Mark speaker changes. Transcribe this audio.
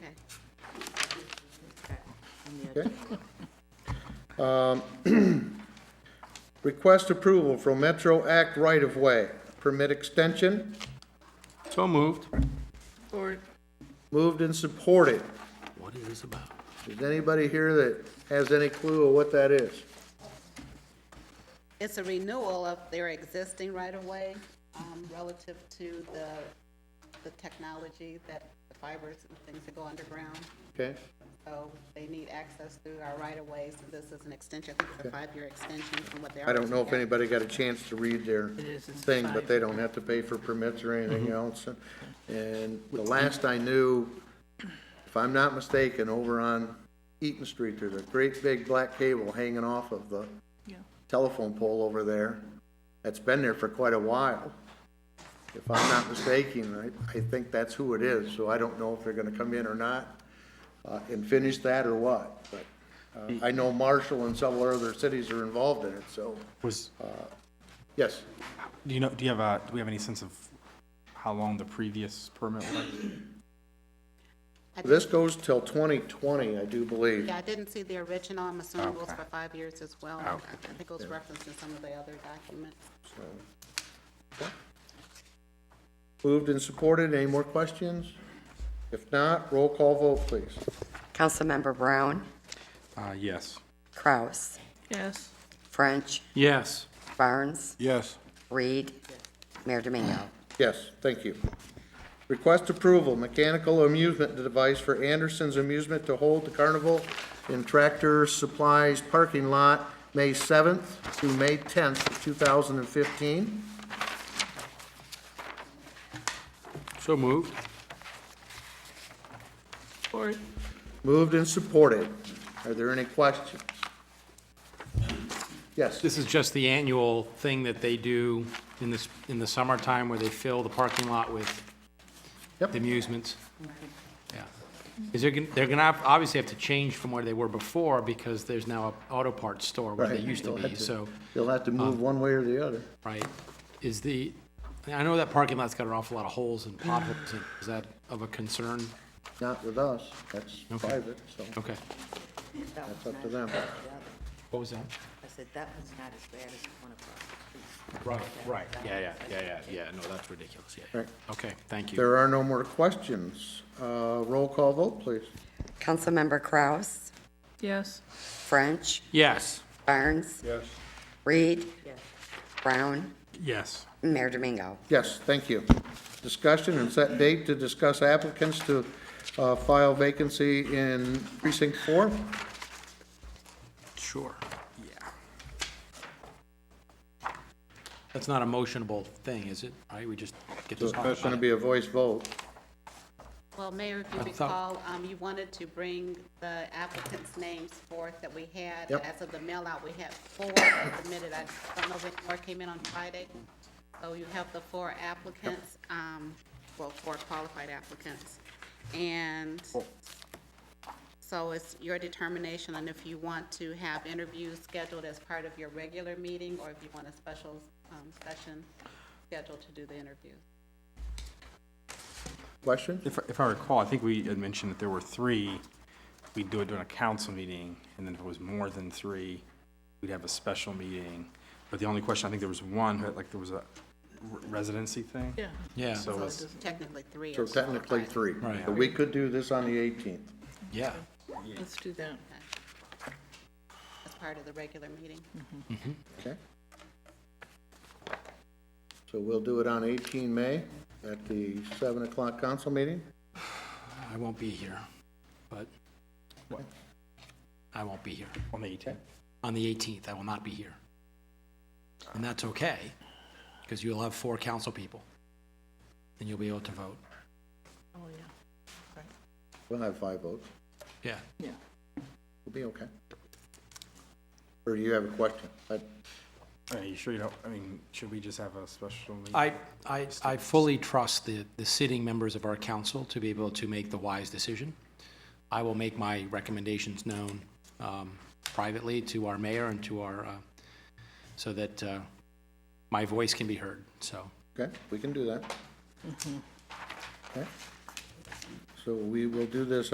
Speaker 1: Okay. Um, Request approval from Metro Act right-of-way, permit extension,
Speaker 2: So moved.
Speaker 3: Or
Speaker 1: moved and supported.
Speaker 2: What is this about?
Speaker 1: Is anybody here that has any clue of what that is?
Speaker 3: it's a renewal of their existing right-of-way um, relative to the, the technology that the fibers and things that go underground.
Speaker 1: Okay,
Speaker 3: So they need access through our right-of-ways, and this is an extension, I think it's a five-year extension from what they are.
Speaker 1: I don't know if anybody got a chance to read their thing, but they don't have to pay for permits or anything
Speaker 2: Mm-hmm.
Speaker 1: else. And the last I knew, if I'm not mistaken, over on Eaton Street, there's a great big black cable hanging off of the telephone pole over there. That's been there for quite a while. If I'm not mistaken, I, I think that's who it is, so I don't know if they're gonna come in or not, uh, and finish that or what, but, uh, I know Marshall and several other cities are involved in it, so,
Speaker 4: Was, uh,
Speaker 1: yes.
Speaker 4: do you know, do you have a, do we have any sense of how long the previous permit was?
Speaker 1: This goes till twenty twenty, I do believe.
Speaker 3: Yeah, I didn't see the original, I'm assuming it goes
Speaker 4: Okay.
Speaker 3: for five years as well. I think it was referenced in some of the other documents.
Speaker 1: So, okay. Moved and supported, any more questions? If not, roll call vote, please.
Speaker 5: Councilmember Brown,
Speaker 4: Uh, yes.
Speaker 5: Kraus,
Speaker 6: Yes.
Speaker 5: French,
Speaker 2: Yes.
Speaker 5: Barnes,
Speaker 2: Yes.
Speaker 5: Reed, Mayor Domingo.
Speaker 1: Yes, thank you. Request approval, mechanical amusement device for Anderson's Amusement to hold the carnival in Tractor Supplies parking lot, May 7th through May 10th, of 2015.
Speaker 2: So moved.
Speaker 6: Or
Speaker 1: Moved and supported. Are there any questions? Yes,
Speaker 7: This is just the annual thing that they do in this, in the summertime where they fill the parking lot with
Speaker 1: Yep.
Speaker 7: the amusements. Yeah. Is there, gon- they're gonna have- obviously have to change from where they were before because there's now a auto parts store where they
Speaker 1: Right.
Speaker 7: used to
Speaker 1: You'll
Speaker 7: be,
Speaker 1: have to-
Speaker 7: so, um,
Speaker 1: you'll have to move one way or the other.
Speaker 7: right? Is the, I know that parking lot's got an awful lot of holes and potholes. in it. Is that of a concern?
Speaker 1: Not with us, that's
Speaker 7: Okay.
Speaker 1: private, so
Speaker 7: Okay.
Speaker 1: that's up to them.
Speaker 7: What was that?
Speaker 8: I said, that one's not as bad as the one across the street.
Speaker 7: Right, right. Yeah, yeah, yeah, yeah, yeah. No, that's ridiculous. Yeah, Yeah.
Speaker 1: Right.
Speaker 7: Okay, thank you.
Speaker 1: There are no more questions. Uh, Roll call vote, please.
Speaker 5: Councilmember Kraus,
Speaker 6: Yes.
Speaker 5: French,
Speaker 7: Yes.
Speaker 5: Barnes,
Speaker 1: Yes.
Speaker 5: Reed, Brown,
Speaker 4: Yes.
Speaker 5: Mayor Domingo.
Speaker 1: Yes, thank you. Discussion and set date to discuss applicants to uh, file vacancy in precinct four.
Speaker 7: Sure, yeah. That's not a motionable thing, is it? All right, we just get to
Speaker 1: It's
Speaker 7: talk
Speaker 1: going to
Speaker 7: about
Speaker 1: be
Speaker 7: it.
Speaker 1: a voice vote.
Speaker 3: Well, Mayor, if you
Speaker 7: I thought-
Speaker 3: recall, um, you wanted to bring the applicants' names forth that we had.
Speaker 1: Yep.
Speaker 3: As of the mail-out, we had four that submitted. I don't know if any more came in on Friday. So you have the four applicants, um, well, four qualified applicants. And so it's your determination on if you want to have interviews scheduled as part of your regular meeting or if you want a special, um, session scheduled to do the interviews.
Speaker 1: Question?
Speaker 4: If, if I recall, I think we had mentioned that there were three, we'd do it during a council meeting, and then if it was more than three, we'd have a special meeting. But the only question, I think there was one, who had, like, there was a residency thing?
Speaker 6: Yeah.
Speaker 7: Yeah,
Speaker 4: So it's,
Speaker 3: Technically three.
Speaker 1: So
Speaker 3: are
Speaker 1: technically
Speaker 3: qualified.
Speaker 1: three.
Speaker 7: Right.
Speaker 1: But we could do this on the 18th.
Speaker 7: yeah.
Speaker 6: Let's do that.
Speaker 3: as part of the regular meeting.
Speaker 1: Okay. So we'll do it on 18 May at the 7 o'clock council meeting?
Speaker 7: I won't be here, but I won't be here.
Speaker 4: on the 18th.
Speaker 7: On the 18th, I will not be here. And that's okay, because you'll have four council people, and you'll be able to vote.
Speaker 6: Oh, yeah.
Speaker 1: We'll have five votes.
Speaker 7: Yeah.
Speaker 6: Yeah.
Speaker 1: We'll be okay. Or do you have a question? I-
Speaker 4: Are you sure you don't, I mean, should we just have a special meeting?
Speaker 7: I, I, I fully trust the, the sitting members of our council to be able to make the wise decision. I will make my recommendations known um, privately to our mayor and to our, uh, so that uh, my voice can be heard, so.
Speaker 1: Okay, we can do that. Okay. So we will do this